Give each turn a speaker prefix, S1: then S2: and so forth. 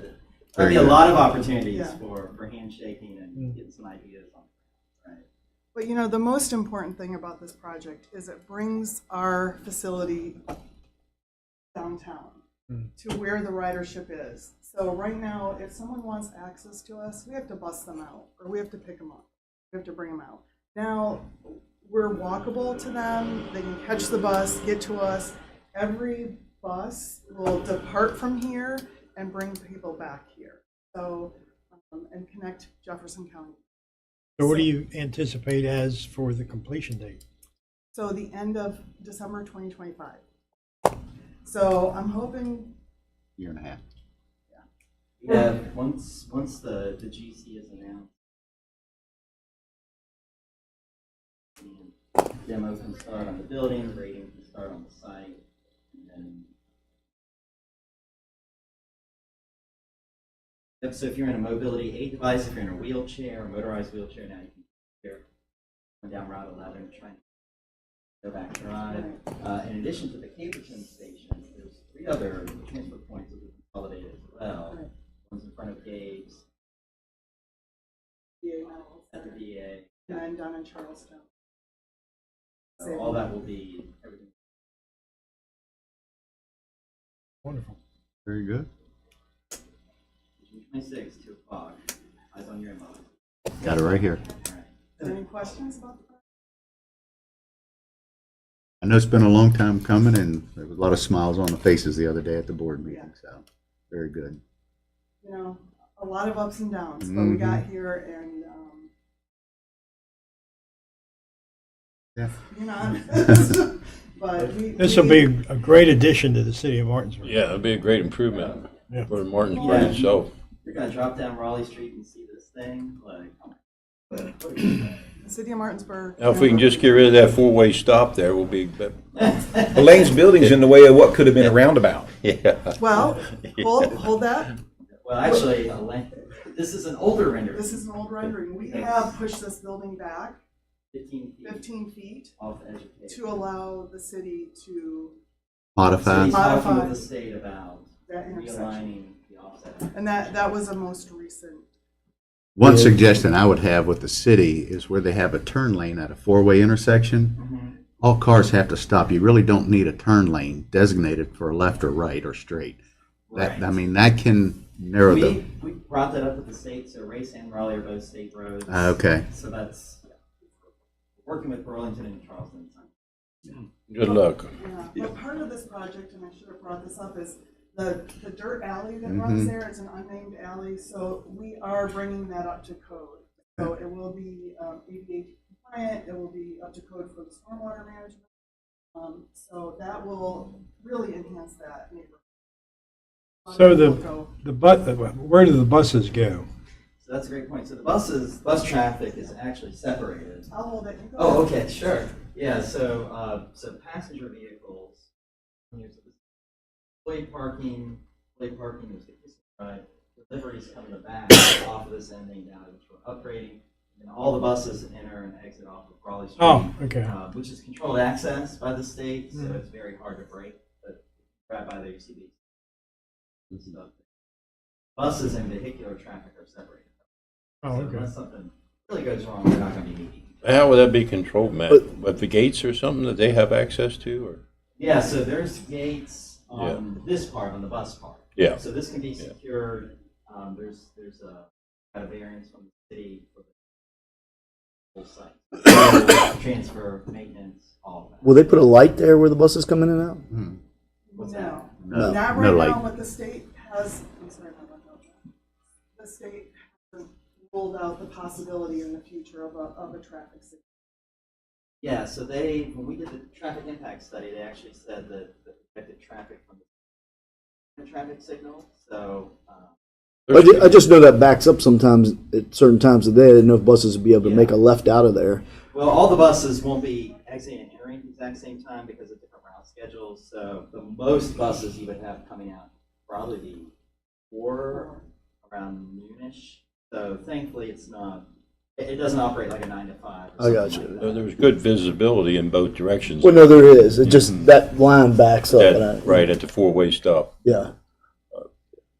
S1: There'll be a
S2: Very good. Mm.
S1: lot of opportunities
S3: Yeah.
S1: for, for handshaking and getting some ideas on, right?
S3: But you know, the most important thing about this project is it brings our facility downtown to where the ridership is. So right now, if someone wants access to us, we have to bus them out, or we have to pick them up, we have to bring them out. Now, we're walkable to them, they can catch the bus, get to us. Every bus will depart from here and bring people back here, so, um, and connect Jefferson County.
S4: So what do you anticipate as for the completion date?
S3: So the end of December 2025. So I'm hoping,
S2: year and a half.
S1: Yeah, once, once the, the GC is announced. and Demo can start on the building, rating can start on the site, and then. Yep, so if you're in a mobility aid device, if you're in a wheelchair, a motorized wheelchair, now you can here, come down Route 11, try and go back to Drive. Uh, in addition to the Caperton station, there's three other transfer points that we consolidated as well.
S3: Right.
S1: One's in front of Gabe's,
S3: yeah, no,
S1: at the VA,
S3: and then down in Charleston.
S1: so all that will be, everything
S4: Wonderful.
S2: Very good.
S1: June twenty-sixth, two o'clock, eyes on your inbox.
S2: Got it right here.
S1: All right.
S3: Is there Any questions about that?
S2: I know it's been a long time coming, and there was a lot of smiles on the faces the other day at the board meeting, so, very good.
S3: You know, a lot of ups and downs, but
S1: Mm-hmm.
S3: we got here and, um,
S2: Yeah.
S3: um, you know, but we.
S4: This will
S3: we-
S4: be a great addition to the city of Martinsburg.
S5: Yeah, that'd be a great improvement
S4: Yeah.
S5: for Martinsburg
S1: Yeah.
S5: itself.
S1: You're gonna drop down Raleigh Street and see this thing, like, oh my. God, what is that?
S3: The city of Martinsburg.
S5: Now, if we can just get rid of that four-way stop there, we'll be, but,
S6: Well, Lane's building's in the way of what could have been a roundabout.
S5: yeah.
S3: Well, hold, hold that.
S1: Well, actually, a la- this is an older render,
S3: This is an old rendering. We have pushed this building back
S1: fifteen feet
S3: 15 feet
S1: off the edge of Cape.
S3: to allow the city
S1: So
S3: to,
S2: Modify.
S1: he's talking
S3: Modify.
S1: with the state about
S3: That intersection.
S1: realigning the offset.
S3: and that, that was the most recent.
S2: One suggestion I would have with the city is where they have a turn lane at a four-way intersection, all cars have to stop. You really don't need a turn lane designated for left or right or straight. That, I
S1: Right.
S2: mean, that can narrow the,
S1: We, we brought that up with the state, so Race and Raleigh are both state roads.
S2: Ah, okay.
S1: So that's, working with Burlington and Charleston.
S5: Good luck.
S3: Yeah. But part of this project, and I should have brought this up, is the, the dirt alley that runs there is an unnamed alley, so we are bringing that up to code. So it will be um, ADA compliant, it will be up to code for the stormwater management. Um, So that will really enhance that neighborhood. A lot of
S4: So the-
S3: people go-
S4: The bu, uh, where do the buses go?
S1: So that's a great point. So the buses, bus traffic is actually separated.
S3: I'll hold it. You go.
S1: Oh, okay, sure. Yeah, so, uh, so passenger vehicles, here's the employee parking, employee parking is right, deliveries come in the back off of this ending now, which we're upgrading. And all the buses enter and exit off of Raleigh Street.
S4: Oh, Mm-hmm. okay.
S1: uh, which is controlled access by the state, so it's very hard to break, but right by there, you see these- these stuff. Buses and vehicular traffic are separated.
S4: Oh,
S1: So
S4: okay.
S1: unless something really goes wrong, they're not gonna be meeting.
S5: How would that be controlled, Matt? With the gates or something that they have access to, or?
S1: Yeah, so there's gates on this part, on the bus part.
S5: Yeah.
S1: So this can be secured, um, there's, there's a, got a variance from the city for the whole site. Transfer, maintenance, all of that.
S7: Will they put a light there where the buses come in and out?
S1: What's that?
S3: No.
S2: No,
S3: Not
S2: no
S3: right now,
S2: light.
S3: but the state has, I'm sorry, my bad, Dr. the state has ruled out the possibility in the future of a, of a traffic signal.
S1: Yeah, so they, when we did the traffic impact study, they actually said that the affected traffic from the traffic signal, so, uh,
S7: I ju- I just know that backs up sometimes at certain times of the day. I didn't know if buses would be able to make a left out of there.
S1: well, all the buses won't be exiting and entering at the exact same time because of different route schedules, so the most buses you would have coming out probably be four around noonish, so thankfully it's not, it, it doesn't operate like a nine to five. or
S7: I got
S1: something like
S5: So
S1: that.
S5: There's good visibility in both directions.
S7: Well, no, there is. It just, that line backs up. and I-
S5: That- Right, at the four-way stop.
S7: Yeah.